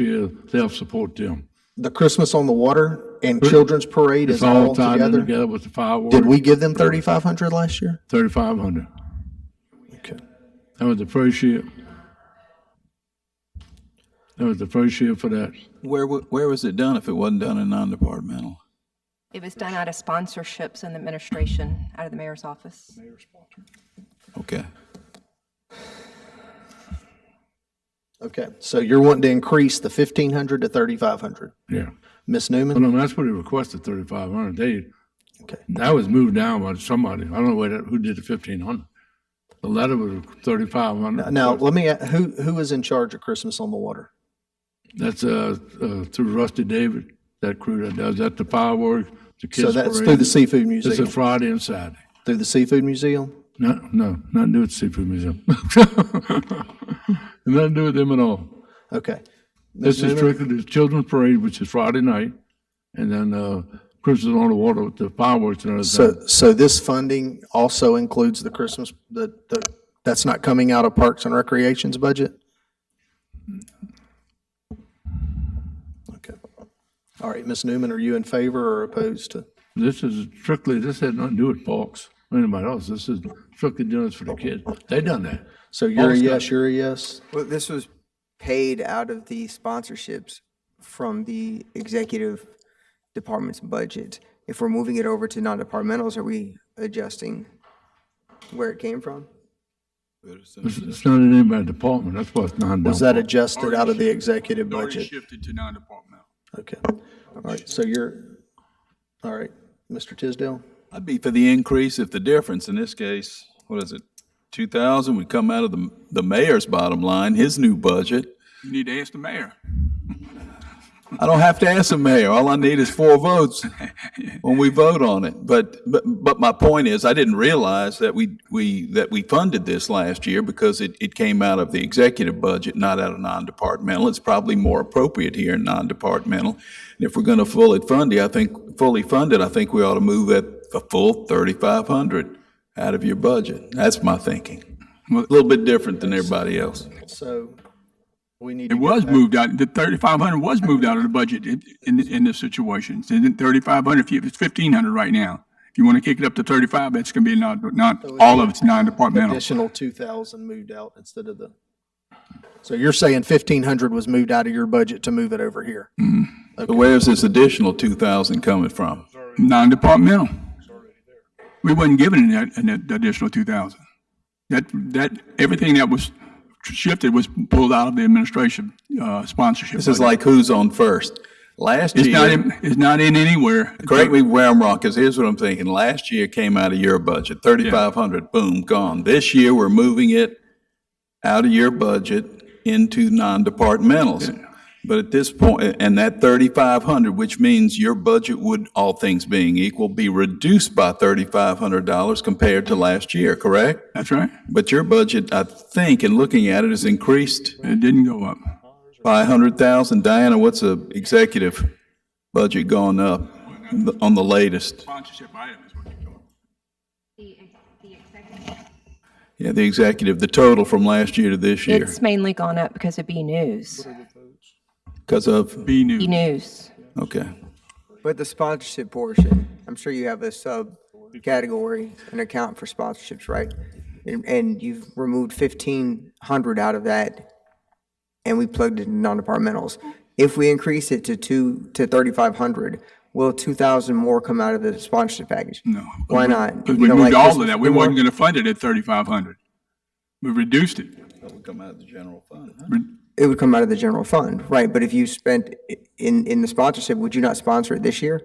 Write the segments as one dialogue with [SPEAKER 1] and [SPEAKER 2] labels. [SPEAKER 1] Yeah, they'll support them.
[SPEAKER 2] The Christmas on the Water and Children's Parade is
[SPEAKER 1] It's all
[SPEAKER 2] all
[SPEAKER 1] tied in
[SPEAKER 2] together.
[SPEAKER 1] together with the
[SPEAKER 2] Did
[SPEAKER 1] fireworks,
[SPEAKER 2] we give them thirty-five hundred last year?
[SPEAKER 1] thirty-five hundred.
[SPEAKER 2] Okay.
[SPEAKER 1] That was the first year. That was the first year for that.
[SPEAKER 3] Where, wa- where was it done if it wasn't done in non-departmental?
[SPEAKER 4] It was done out of sponsorships and administration, out of the mayor's office.
[SPEAKER 3] Okay.
[SPEAKER 2] Okay, so you're wanting to increase the fifteen hundred to thirty-five hundred.
[SPEAKER 1] Yeah.
[SPEAKER 2] Miss
[SPEAKER 1] Well,
[SPEAKER 2] Newman?
[SPEAKER 1] no, that's what he requested, thirty-five hundred. They,
[SPEAKER 2] Okay.
[SPEAKER 1] that was moved down by somebody. I don't know where that, who did the fifteen hundred. The letter was thirty-five hundred.
[SPEAKER 2] Now, let me, a- who, who is in charge of Christmas on the Water?
[SPEAKER 1] That's, uh, uh, through Rusty David, that crew that does that, the fireworks, the kids
[SPEAKER 2] So
[SPEAKER 1] parade.
[SPEAKER 2] that's through the Seafood
[SPEAKER 1] It's a
[SPEAKER 2] Museum,
[SPEAKER 1] Friday and Saturday.
[SPEAKER 2] through the Seafood Museum?
[SPEAKER 1] No, no, nothing to do with the seafood museum. Nothing to do with them at all.
[SPEAKER 2] Okay.
[SPEAKER 1] This is strictly the children's parade, which is Friday night, and then, uh, Christmas on the water with the fireworks and everything.
[SPEAKER 2] So, so this funding also includes the Christmas, the, the, that's not coming out of Parks and Recreation's budget? Okay. All right, Ms. Newman, are you in favor or opposed to?
[SPEAKER 1] This is strictly, this had nothing to do with Fox, or anybody else. This is strictly doing this for the kids. They done that.
[SPEAKER 2] So you're a
[SPEAKER 1] Austin.
[SPEAKER 2] yes, you're a yes?
[SPEAKER 5] Well, this was paid out of the sponsorships from the executive department's budget. If we're moving it over to non-departmentals, are we adjusting where it came from?
[SPEAKER 1] It's, it's not in anybody's department. That's why it's not
[SPEAKER 2] Was
[SPEAKER 1] done.
[SPEAKER 2] that adjusted out of the executive budget?
[SPEAKER 6] shifted to non-departmental.
[SPEAKER 2] Okay. All right, so you're, all right, Mr. Tisdale?
[SPEAKER 3] I'd be for the increase if the difference, in this case, what is it, 2,000 would come out of the, the mayor's bottom line, his new budget.
[SPEAKER 6] You need to ask the mayor.
[SPEAKER 3] I don't have to ask the mayor. All I need is four votes when we vote on it. But, but, but my point is, I didn't realize that we, we, that we funded this last year because it, it came out of the executive budget, not out of non-departmental. It's probably more appropriate here in non-departmental. And if we're going to fully fund it, I think, fully fund it, I think we ought to move at a full thirty-five hundred out of your budget. That's my thinking. A little bit different than everybody else.
[SPEAKER 2] So we need
[SPEAKER 6] It
[SPEAKER 2] to get
[SPEAKER 6] was
[SPEAKER 2] back-
[SPEAKER 6] moved out, the thirty-five hundred was moved out of the budget in, in, in this situation. So then thirty-five hundred, if you, it's fifteen hundred right now. If you want to kick it up to thirty-five, that's gonna be non, not, all of it's non-departmental.
[SPEAKER 2] additional two thousand moved out instead of the. So you're saying fifteen hundred was moved out of your budget to move it over here?
[SPEAKER 6] Mm.
[SPEAKER 3] But where's this additional two thousand coming from?
[SPEAKER 6] Non-departmental. We wasn't given an, an additional two thousand. That, that, everything that was shifted was pulled out of the administration, uh, sponsorship.
[SPEAKER 3] This is
[SPEAKER 6] budget.
[SPEAKER 3] like who's on first. Last
[SPEAKER 6] It's not
[SPEAKER 3] year,
[SPEAKER 6] in, it's not in anywhere.
[SPEAKER 3] correct me where I'm wrong, because here's what I'm thinking. Last year came out of your budget, thirty-five hundred, boom, gone. This year, we're moving it out of your budget into non-departmentals. But at this point, and that thirty-five hundred, which means your budget would, all things being equal, be reduced by thirty-five hundred dollars compared to last year, correct?
[SPEAKER 6] That's right.
[SPEAKER 3] But your budget, I think, in looking at it, is increased
[SPEAKER 6] It didn't go up.
[SPEAKER 3] By hundred thousand, Diana, what's the executive budget going up on the latest?
[SPEAKER 6] Sponsorship item is what you're talking.
[SPEAKER 3] Yeah, the executive, the total from last year to this year,
[SPEAKER 4] It's mainly gone up because of B News.
[SPEAKER 3] because of,
[SPEAKER 6] B news.
[SPEAKER 4] B News.
[SPEAKER 3] okay.
[SPEAKER 5] But the sponsorship portion, I'm sure you have a subcategory, an account for sponsorships, right? And, and you've removed fifteen hundred out of that, and we plugged it in non-departmentals. If we increase it to two, to thirty-five hundred, will two thousand more come out of the sponsorship package?
[SPEAKER 6] No.
[SPEAKER 5] Why not?
[SPEAKER 6] Because
[SPEAKER 5] You
[SPEAKER 6] we
[SPEAKER 5] don't
[SPEAKER 6] moved
[SPEAKER 5] like
[SPEAKER 6] all
[SPEAKER 5] Christmas
[SPEAKER 6] of that. We
[SPEAKER 5] anymore?
[SPEAKER 6] wasn't gonna fund it at thirty-five hundred. We reduced it.
[SPEAKER 3] That would come out of the general fund, huh?
[SPEAKER 6] Re-
[SPEAKER 5] It would come out of the general fund, right? But if you spent i- in, in the sponsorship, would you not sponsor it this year?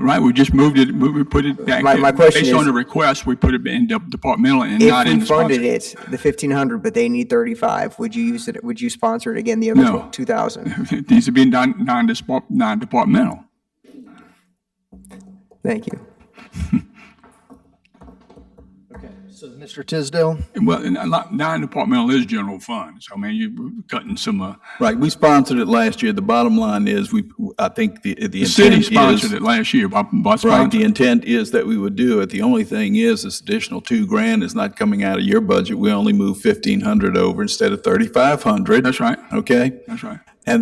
[SPEAKER 6] Right, we just moved it, we we put it back.
[SPEAKER 5] My- my question
[SPEAKER 6] Based on
[SPEAKER 5] is-
[SPEAKER 6] the request, we put it in de- departmental and
[SPEAKER 5] If
[SPEAKER 6] not in
[SPEAKER 5] we
[SPEAKER 6] the
[SPEAKER 5] funded
[SPEAKER 6] sponsor.
[SPEAKER 5] it, the fifteen hundred, but they need thirty-five, would you use it, would you sponsor it again, the other
[SPEAKER 6] No.
[SPEAKER 5] two thousand?
[SPEAKER 6] It needs to be non, non-depart, non-departmental.
[SPEAKER 5] Thank you.
[SPEAKER 2] So Mr. Tisdale,
[SPEAKER 6] Well, and a lot- non-departmental is general fund, so I mean, you're cutting some, uh,
[SPEAKER 3] Right, we sponsored it last year. The bottom line is, we, I think the, the.
[SPEAKER 6] the city
[SPEAKER 3] intent is-
[SPEAKER 6] sponsored it last year by, by
[SPEAKER 3] Right, the
[SPEAKER 6] sponsoring.
[SPEAKER 3] intent is that we would do it. The only thing is, this additional two grand is not coming out of your budget. We only move fifteen hundred over instead of thirty-five hundred.
[SPEAKER 6] That's right,
[SPEAKER 3] Okay?
[SPEAKER 6] that's right.